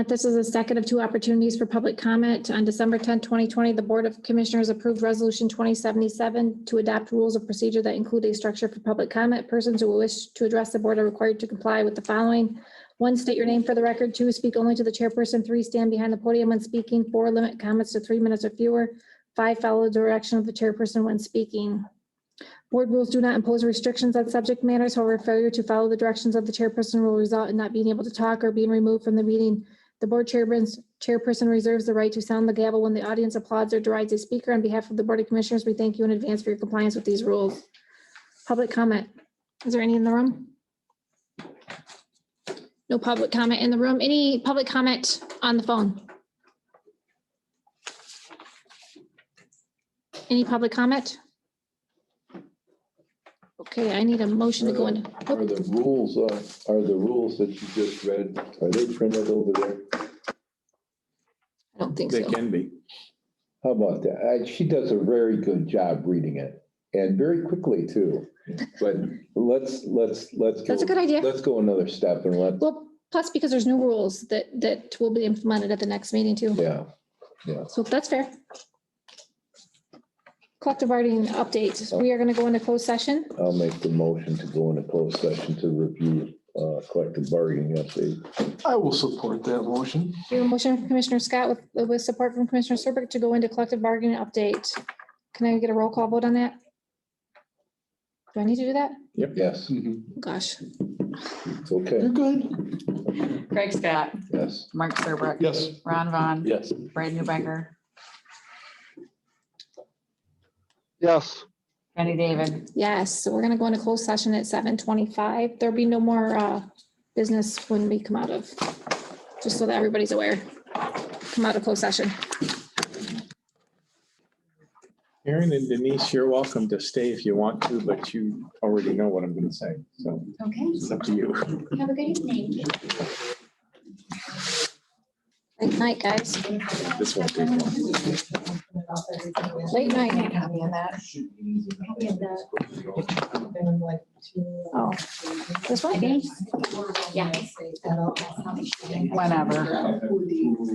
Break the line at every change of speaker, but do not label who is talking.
This is a second of two opportunities for public comment. On December 10, 2020, the Board of Commissioners approved Resolution 2077 to adopt rules of procedure that include a structure for public comment. Persons who wish to address the board are required to comply with the following. One, state your name for the record. Two, speak only to the chairperson. Three, stand behind the podium when speaking. Four, limit comments to three minutes or fewer. Five, follow the direction of the chairperson when speaking. Board rules do not impose restrictions on subject matters. However, failure to follow the directions of the chairperson will result in not being able to talk or being removed from the meeting the board chairman's chairperson reserves the right to sound the gavel when the audience applauds or derides a speaker. On behalf of the Board of Commissioners, we thank you in advance for your compliance with these rules. Public comment. Is there any in the room? No public comment in the room. Any public comment on the phone? Any public comment? Okay, I need a motion to go into.
Are the rules, uh, are the rules that you just read, are they printed over there?
I don't think
They
so.
can be.
How about that? Uh, She does a very good job reading it and very quickly too. But let's, let's, let's. go-
That's a good idea.
Let's go another step and let,
Well, plus because there's new rules that, that will be implemented at the next meeting too.
yeah.
So that's fair. Collective bargaining updates. We are going to go into closed session.
I'll make the motion to go into closed session to review uh, collective bargaining update.
I will support that motion.
We have a motion from Commissioner Scott with, with support from Commissioner Serbrook to go into collective bargaining update. Can I get a roll call vote on that? Do I need to do that?
Yes,
Mm-hmm. Gosh,
it's okay.
good.
Craig Scott,
Yes.
Mark Serbrook.
Yes.
Ron Vaughn,
Yes.
Brad Newbecker,
Yes,
Jenny David.
yes. So we're going to go into closed session at seven twenty-five. There'll be no more, uh, business when we come out of, just so that everybody's aware. Come out of closed session.
Aaron and Denise, you're welcome to stay if you want to, but you already know what I'm going to say. So
Okay,
it's up to you.
have a good evening.
Late night, guys.
This won't take long.
Late night.
Copy of that. Copy of that.
Oh, this one?
Yeah.
Whenever.